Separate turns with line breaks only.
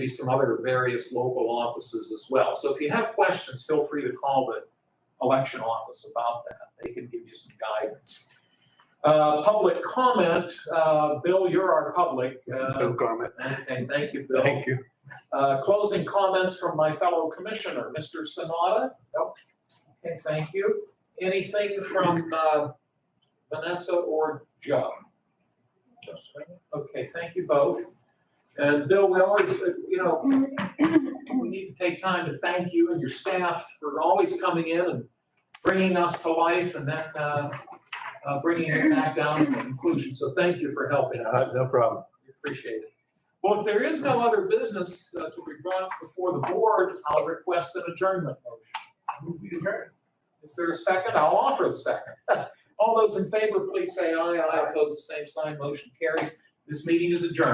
be some other various local offices as well. So if you have questions, feel free to call the election office about that. They can give you some guidance. Uh, public comment, uh, Bill, you're our public, uh,
No comment.
and thank you, Bill.
you.
Uh, closing comments from my fellow commissioner, Mr. Sanada? Nope. Okay, thank you. Anything from, uh, Vanessa or Joe? Okay, thank you both. And Bill, we always, uh, you know, we need to take time to thank you and your staff for always coming in and bringing us to life and then, uh, uh, bringing it back down to conclusion. So thank you for helping us.
Uh, No problem.
We Appreciate it. Well, if there is no other business uh, to be brought before the board, I'll request an adjournment motion. Is there a second? I'll offer the second. All those in favor, please say aye. Aye, opposed, the same sign. Motion carries. This meeting is adjourned.